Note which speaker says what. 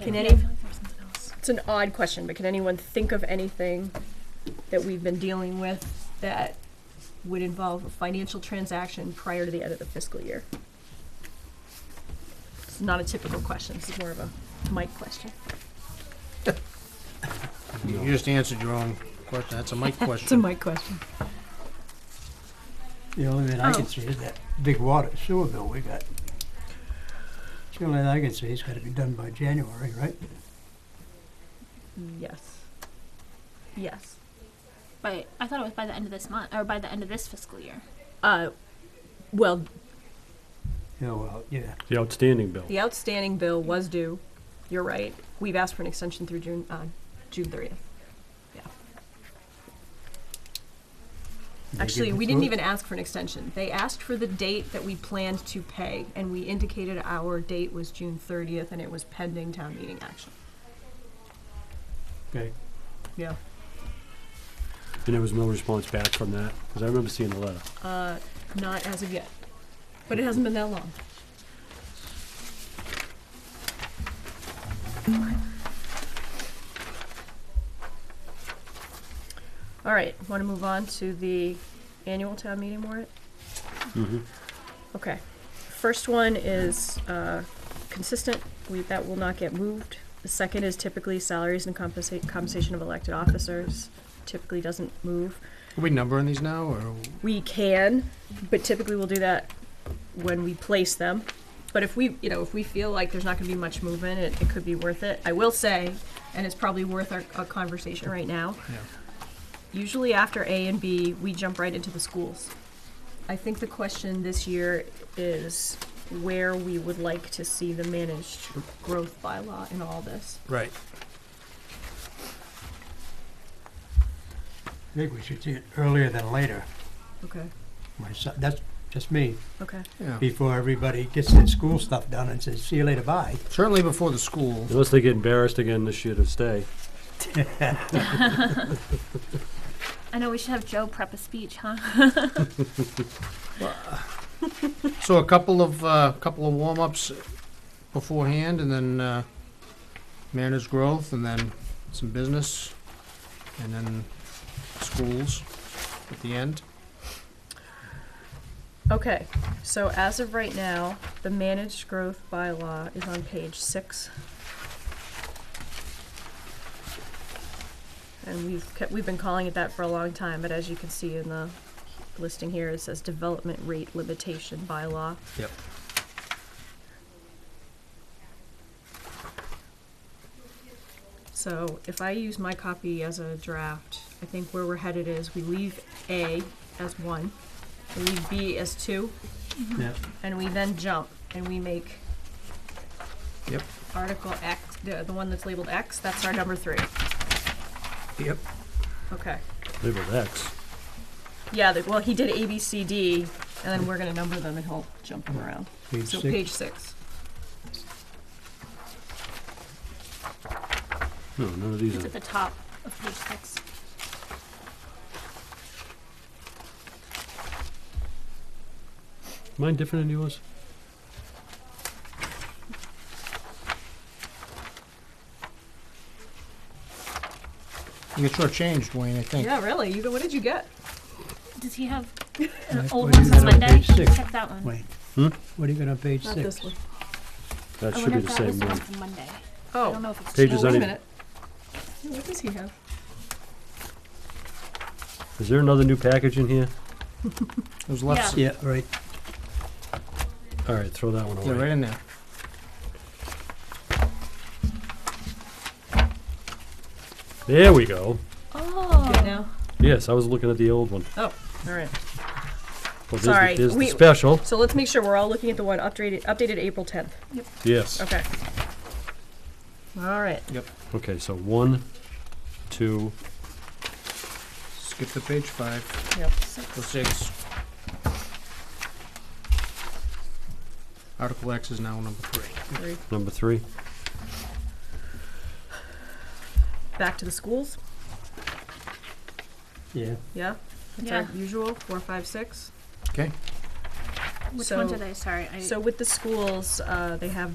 Speaker 1: Can any, it's an odd question, but can anyone think of anything that we've been dealing with that would involve a financial transaction prior to the end of the fiscal year? It's not a typical question, this is more of a Mike question.
Speaker 2: You you just answered your own question. That's a Mike question.
Speaker 1: Mike question.
Speaker 3: The only thing I
Speaker 1: Oh.
Speaker 3: can see is that big water sewer bill we got. It's The only thing I can see, it's gotta be done by January, right?
Speaker 1: Yes. Yes.
Speaker 4: But I thought it was by the end of this month or by the end of this fiscal year.
Speaker 1: Uh, well,
Speaker 3: Yeah, well, yeah.
Speaker 5: The outstanding bill.
Speaker 1: The outstanding bill was due, you're right. We've asked for an extension through June, uh, June thirtieth. Yeah.
Speaker 3: Did they
Speaker 1: Actually,
Speaker 3: give it
Speaker 1: we
Speaker 3: to
Speaker 1: didn't
Speaker 3: us?
Speaker 1: even ask for an extension. They asked for the date that we planned to pay, and we indicated our date was June thirtieth, and it was pending town meeting action.
Speaker 3: Okay,
Speaker 1: Yeah.
Speaker 5: And there was no response back from that, because I remember seeing the letter.
Speaker 1: Uh, not as of yet, but it hasn't been that long. All right, want to move on to the annual town meeting warrant?
Speaker 5: Mm-hmm.
Speaker 1: Okay. First one is uh, consistent. We, that will not get moved. The second is typically salaries and compensa- compensation of elected officers. Typically doesn't move.
Speaker 2: Are we numbering these now, or
Speaker 1: We can, but typically we'll do that when we place them. But if we, you know, if we feel like there's not going to be much movement, it, it could be worth it. I will say, and it's probably worth our, our conversation right now.
Speaker 2: Yeah.
Speaker 1: Usually after A and B, we jump right into the schools. I think the question this year is where we would like to see the managed growth bylaw in all this.
Speaker 2: right?
Speaker 3: I think we should see it earlier than later.
Speaker 1: Okay.
Speaker 3: My son, that's just me,
Speaker 1: Okay.
Speaker 2: Yeah.
Speaker 3: before everybody gets their school stuff done and says, see you later, bye.
Speaker 2: Certainly before the school.
Speaker 5: Unless they get embarrassed again this year to stay.
Speaker 4: I know we should have Joe prep a speech, huh?
Speaker 2: So a couple of uh, couple of warm ups beforehand, and then uh, managed growth, and then some business, and then schools at the end.
Speaker 1: Okay, so as of right now, the managed growth bylaw is on page six. And we've kept, we've been calling it that for a long time, but as you can see in the listing here, it says development rate limitation bylaw.
Speaker 2: Yep.
Speaker 1: So if I use my copy as a draft, I think where we're headed is we leave A as one, we leave B as two,
Speaker 3: Yeah,
Speaker 1: and we then jump and we make
Speaker 2: Yep.
Speaker 1: article X, the, the one that's labeled X, that's our number three.
Speaker 2: Yep.
Speaker 1: Okay.
Speaker 5: Labeled X.
Speaker 1: Yeah, the, well, he did A, B, C, D, and then we're gonna number them and he'll jump them around.
Speaker 3: page
Speaker 1: So
Speaker 3: six.
Speaker 1: page six.
Speaker 5: No, none of these
Speaker 4: It's
Speaker 5: are.
Speaker 4: at the top of page six.
Speaker 5: Mine different than yours?
Speaker 2: You get shortchanged, Wayne. I think.
Speaker 1: Yeah, really? You, go- what did you get?
Speaker 4: Does he have
Speaker 3: Mike, what
Speaker 4: old
Speaker 3: do you
Speaker 4: ones
Speaker 3: got
Speaker 4: on
Speaker 3: on
Speaker 4: Monday?
Speaker 3: page six?
Speaker 4: Check that one.
Speaker 3: Wayne,
Speaker 5: Hmm?
Speaker 3: what do you got on page
Speaker 1: Not
Speaker 3: six?
Speaker 1: this one.
Speaker 5: That
Speaker 4: I
Speaker 5: should
Speaker 4: wonder
Speaker 5: be
Speaker 4: if
Speaker 5: the
Speaker 4: Oh, that was
Speaker 5: same
Speaker 4: the one
Speaker 5: one.
Speaker 4: from Monday. I don't
Speaker 1: Oh,
Speaker 4: know if it's
Speaker 5: Pages
Speaker 1: wait
Speaker 5: on
Speaker 1: a
Speaker 5: it.
Speaker 1: minute. Yeah, What does he have?
Speaker 5: Is there another new package in here?
Speaker 2: It was left.
Speaker 3: Yeah, right,
Speaker 5: All right, throw that one
Speaker 2: Yeah, right
Speaker 5: away.
Speaker 2: in there.
Speaker 5: There we go.
Speaker 4: Oh.
Speaker 1: Good now?
Speaker 5: Yes, I was looking at the old one.
Speaker 1: All right.
Speaker 5: Well, there's the-
Speaker 1: Sorry,
Speaker 5: There's the
Speaker 1: we-
Speaker 5: special.
Speaker 1: So let's make sure we're all looking at the one updated, updated April tenth.
Speaker 5: Yes.
Speaker 1: Okay. All right.
Speaker 5: Okay, so one, two,
Speaker 2: Skip to page five
Speaker 1: Yep.
Speaker 2: or six. Article X is now number three.
Speaker 1: Three.
Speaker 5: number three.
Speaker 1: Back to the schools.
Speaker 3: yeah.
Speaker 1: Yeah. That's
Speaker 4: Yeah.
Speaker 1: our usual four, five, six.
Speaker 2: Okay.
Speaker 4: Which
Speaker 1: So-
Speaker 4: ones are they? Sorry. I,
Speaker 1: So with the schools, uh, they have